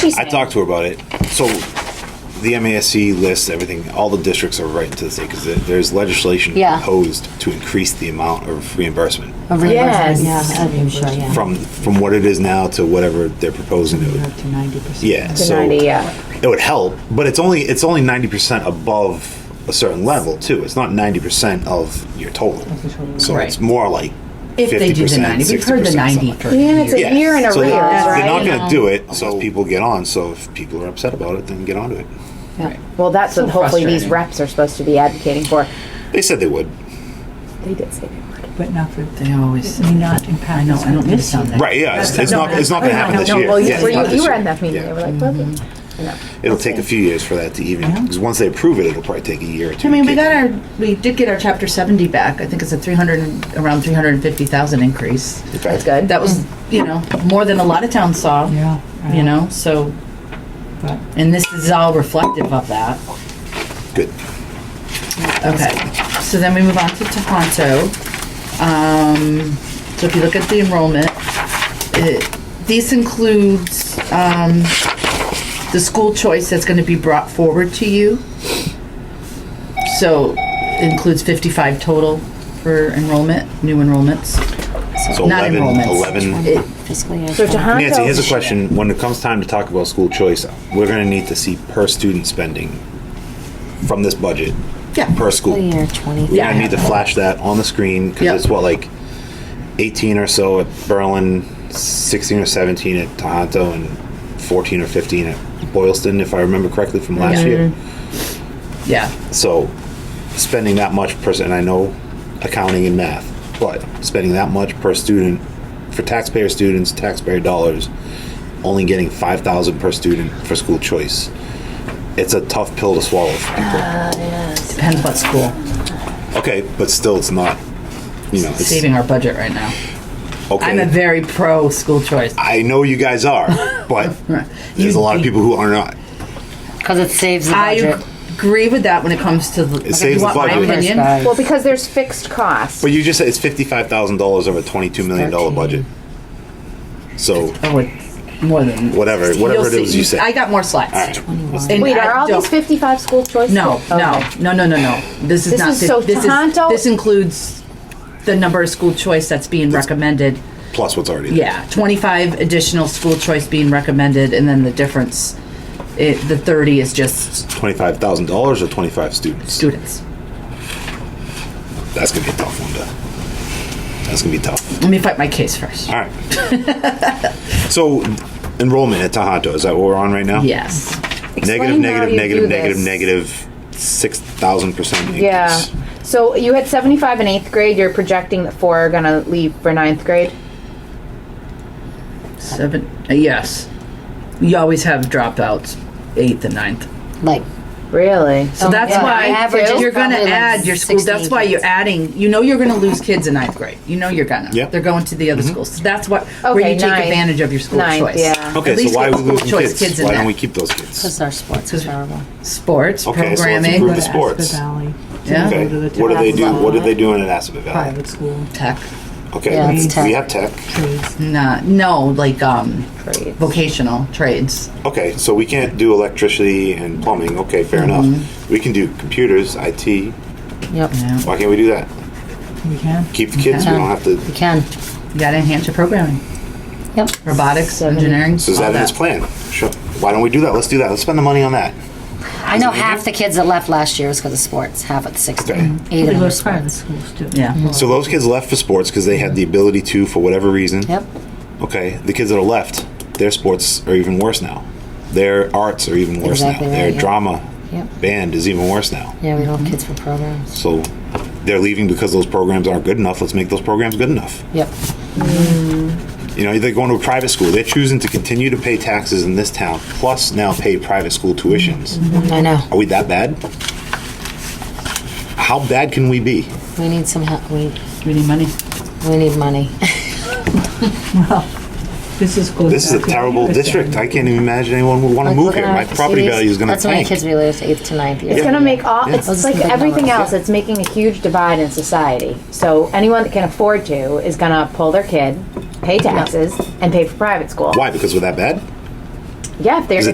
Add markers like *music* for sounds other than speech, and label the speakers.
Speaker 1: I talked to her about it. So the MASC lists everything, all the districts are right into the state because there's legislation
Speaker 2: Yeah.
Speaker 1: proposed to increase the amount of reimbursement
Speaker 2: Of
Speaker 3: Yes.
Speaker 2: reimbursement, Yeah, I'm sure, yeah.
Speaker 1: from, from what it is now to whatever they're proposing. to
Speaker 2: Up to 90%.
Speaker 1: Yeah,
Speaker 3: To
Speaker 1: so
Speaker 3: 90, yeah.
Speaker 1: it would help, but it's only, it's only 90% above a certain level too. It's not 90% of your total. So it's
Speaker 4: Right.
Speaker 1: more like
Speaker 4: If they do the 90,
Speaker 1: 50%,
Speaker 4: we've heard the
Speaker 1: 60%,
Speaker 4: 90
Speaker 1: something.
Speaker 4: for
Speaker 3: And it's
Speaker 4: years.
Speaker 3: a year in arrears,
Speaker 1: So They're
Speaker 3: right?
Speaker 1: not going to do it, so people get on. So if people are upset about it, then get onto it.
Speaker 2: Yeah.
Speaker 3: Well, that's
Speaker 4: So
Speaker 3: what hopefully these
Speaker 4: frustrating.
Speaker 3: reps are supposed to be advocating for.
Speaker 1: They said they would.
Speaker 3: They did say they would.
Speaker 5: But not for,
Speaker 4: They always
Speaker 5: I mean, not in
Speaker 4: I know, I don't mean to sound that.
Speaker 1: Right? Yeah. It's, it's not. It's not going to happen this
Speaker 3: No,
Speaker 1: year.
Speaker 3: well,
Speaker 1: Yeah,
Speaker 3: you, were
Speaker 1: it's not
Speaker 3: you,
Speaker 1: this
Speaker 3: you were
Speaker 1: year.
Speaker 3: at that meeting, they
Speaker 1: Yeah. Mm-hmm.
Speaker 3: were like, well, you know.
Speaker 1: It'll take a few years for that to even. Because once they approve it, it'll probably take a year or two.
Speaker 4: I mean,
Speaker 1: to
Speaker 4: we got our, we did get our chapter 70 back. I think it's a 300, and- around 350,000 increase.
Speaker 1: keep- Okay.
Speaker 3: That's good.
Speaker 4: That was, you know, more than a lot of towns saw.
Speaker 5: Yeah, I
Speaker 4: You know, so,
Speaker 5: But-
Speaker 4: and this is all reflective of that.
Speaker 1: Good.
Speaker 4: Okay, so then we move on to Tohoto. Um, so if you look at the enrollment, it, this includes, um, the school choice that's gonna be brought forward to you. So includes fifty-five total for enrollment, new enrollments.
Speaker 1: So
Speaker 4: Not
Speaker 1: 11,
Speaker 4: enrollments.
Speaker 1: 11.
Speaker 2: Fiscal year.
Speaker 3: So Tohoto.
Speaker 1: Nancy, here's a question. When it comes time to talk about school choice, we're going to need to see per student spending from this budget
Speaker 4: Yeah.
Speaker 1: per school.
Speaker 2: Fiscal year 20.
Speaker 1: We're gonna need to flash that on the screen because
Speaker 4: Yep.
Speaker 1: it's what like 18 or so at Berlin, 16 or 17 at Tohoto, and 14 or 15 at Boylston, if I remember correctly from last year.
Speaker 4: Mm-hmm. Yeah,
Speaker 1: So spending that much per and I know accounting and math, but spending that much per student for taxpayer students, taxpayer dollars, only getting 5,000 per student for school choice. It's a tough pill to swallow for people.
Speaker 4: depends what school,
Speaker 1: Okay, but still, it's not. You know, it's,
Speaker 4: saving our budget right now.
Speaker 1: okay.
Speaker 4: I'm a very pro school choice.
Speaker 1: I know you guys
Speaker 3: *laughs*
Speaker 1: are, but there's a lot of people who are not.
Speaker 2: Because it saves the
Speaker 4: I
Speaker 2: budget.
Speaker 4: agree with that when it comes to the. like, if
Speaker 1: saves
Speaker 4: you
Speaker 1: the
Speaker 4: want my
Speaker 1: budget.
Speaker 4: opinion,
Speaker 2: Guys.
Speaker 3: Well, because there's fixed costs.
Speaker 1: But you just said it's fifty-five thousand dollars over a twenty-two million dollar budget. So
Speaker 4: Oh, it's more than
Speaker 1: Whatever-
Speaker 4: You'll
Speaker 1: whatever it
Speaker 4: see.
Speaker 1: is you say.
Speaker 4: I got more slides. And
Speaker 3: Wait,
Speaker 4: I
Speaker 3: are all
Speaker 4: don't-
Speaker 3: these fifty-five school choices?
Speaker 4: No, no, no, no, no, no. This is
Speaker 3: This
Speaker 4: not.
Speaker 3: is
Speaker 4: fif-
Speaker 3: so
Speaker 4: this
Speaker 3: Tohoto-
Speaker 4: This includes the number of school choice that's being recommended.
Speaker 1: plus what's already there.
Speaker 4: Yeah, twenty-five additional school choice being recommended, and then the difference, it, the thirty is just
Speaker 1: twenty-five thousand dollars or twenty-five students.
Speaker 4: students.
Speaker 1: That's gonna be a tough one to. That's gonna be tough.
Speaker 4: Let me fight my case first.
Speaker 1: All right.
Speaker 4: *laughs*
Speaker 1: so enrollment at Tahanto is that what we're on right now?
Speaker 4: Yes.
Speaker 1: Negative,
Speaker 3: Explain how
Speaker 1: negative,
Speaker 3: you
Speaker 1: negative,
Speaker 3: do
Speaker 1: negative,
Speaker 3: this.
Speaker 1: negative, six thousand percent increase.
Speaker 3: Yeah. So you had seventy-five in eighth grade, you're projecting that four are gonna leave for ninth grade?
Speaker 4: Seven. uh, yes. You always have dropouts, eighth and ninth.
Speaker 2: Like,
Speaker 3: Really?
Speaker 4: So
Speaker 2: Oh,
Speaker 4: that's
Speaker 2: yeah.
Speaker 4: why
Speaker 2: The average is
Speaker 4: you're going to
Speaker 2: probably like
Speaker 4: add your school.
Speaker 2: 16
Speaker 4: That's why you're
Speaker 2: kids.
Speaker 4: adding. You know you're going to lose kids in ninth grade. You know you're going to.
Speaker 1: Yeah.
Speaker 4: They're going to
Speaker 1: Mm-hmm.
Speaker 4: the other schools. So that's what where
Speaker 3: Okay,
Speaker 4: you take
Speaker 3: ninth.
Speaker 4: advantage of your school
Speaker 3: Ninth,
Speaker 4: choice.
Speaker 3: yeah.
Speaker 1: Okay,
Speaker 4: At least
Speaker 1: so why are
Speaker 4: get
Speaker 1: we
Speaker 4: school
Speaker 1: losing
Speaker 4: choice
Speaker 1: kids?
Speaker 4: kids in
Speaker 1: why
Speaker 4: that.
Speaker 1: don't we keep those kids?
Speaker 2: because our sports is terrible.
Speaker 4: Sports
Speaker 1: Okay, so let's
Speaker 4: programming,
Speaker 1: improve the
Speaker 5: But
Speaker 1: sports.
Speaker 5: Aspen Valley.
Speaker 4: Yeah.
Speaker 1: Okay.
Speaker 5: Go to the
Speaker 1: What do they do?
Speaker 5: Tabasco
Speaker 1: What are they doing at Aspen Valley?
Speaker 5: Private school
Speaker 4: tech.
Speaker 1: Okay,
Speaker 2: Yeah,
Speaker 1: we
Speaker 2: it's tech.
Speaker 1: have tech.
Speaker 5: trades.
Speaker 4: Nah, no, like um,
Speaker 3: Trades.
Speaker 4: vocational trades.
Speaker 1: Okay, so we can't do electricity and plumbing. Okay,
Speaker 2: Mm-hmm.
Speaker 1: fair enough. We can do computers, IT.
Speaker 2: Yep.
Speaker 4: Yeah.
Speaker 1: Why can't we do that?
Speaker 5: We can.
Speaker 1: Keep the kids. We
Speaker 2: Yeah.
Speaker 1: don't have
Speaker 2: You
Speaker 1: to.
Speaker 2: can.
Speaker 4: You got to enhance your programming,
Speaker 2: Yep.
Speaker 4: robotics,
Speaker 3: Seven.
Speaker 4: engineering.
Speaker 1: So is
Speaker 4: all
Speaker 1: that in his plan? Sure. Why don't we do that? Let's do that. Let's spend the money on that.
Speaker 2: I know half the kids that left last year was because of sports. Half at the sixth.
Speaker 1: Okay.
Speaker 2: grade. Eight
Speaker 5: They
Speaker 2: of
Speaker 5: go
Speaker 2: them.
Speaker 5: to private schools too.
Speaker 4: Yeah.
Speaker 1: So those kids left for sports because they had the ability to, for whatever reason.
Speaker 2: Yep.
Speaker 1: Okay, the kids that are left, their sports are even worse now. Their arts are even worse
Speaker 2: Exactly
Speaker 1: now.
Speaker 2: right,
Speaker 1: their
Speaker 2: yeah.
Speaker 1: drama
Speaker 2: Yep.
Speaker 1: band is even worse now.
Speaker 2: Yeah, we don't have kids for programs.
Speaker 1: So they're leaving because those programs aren't good enough. Let's make those programs good enough.
Speaker 2: Yep.
Speaker 1: You know, they're going to a private school. They're choosing to continue to pay taxes in this town, plus now pay private school tuitions.
Speaker 2: I know.
Speaker 1: Are we that bad? How bad can we be?
Speaker 2: We need some help. We,
Speaker 4: We need money.
Speaker 2: we need money.
Speaker 5: This is goes
Speaker 1: This is a
Speaker 5: back to
Speaker 1: terrible
Speaker 5: Peterson.
Speaker 1: district. I can't even imagine anyone would want to
Speaker 2: Like,
Speaker 1: move
Speaker 2: look at
Speaker 1: here.
Speaker 2: our
Speaker 1: My property
Speaker 2: cities.
Speaker 1: value is going to
Speaker 2: That's how many
Speaker 1: tank.
Speaker 2: kids we lose eighth to ninth year.
Speaker 3: It's gonna make all, it's
Speaker 2: Those
Speaker 3: like
Speaker 2: are the big
Speaker 3: everything
Speaker 2: numbers.
Speaker 3: else, it's making a huge divide in society. So anyone that can afford to is gonna pull their kid, pay taxes, and pay for private school.
Speaker 1: Why? Because we're that bad?
Speaker 6: Yeah, if they're
Speaker 3: Is it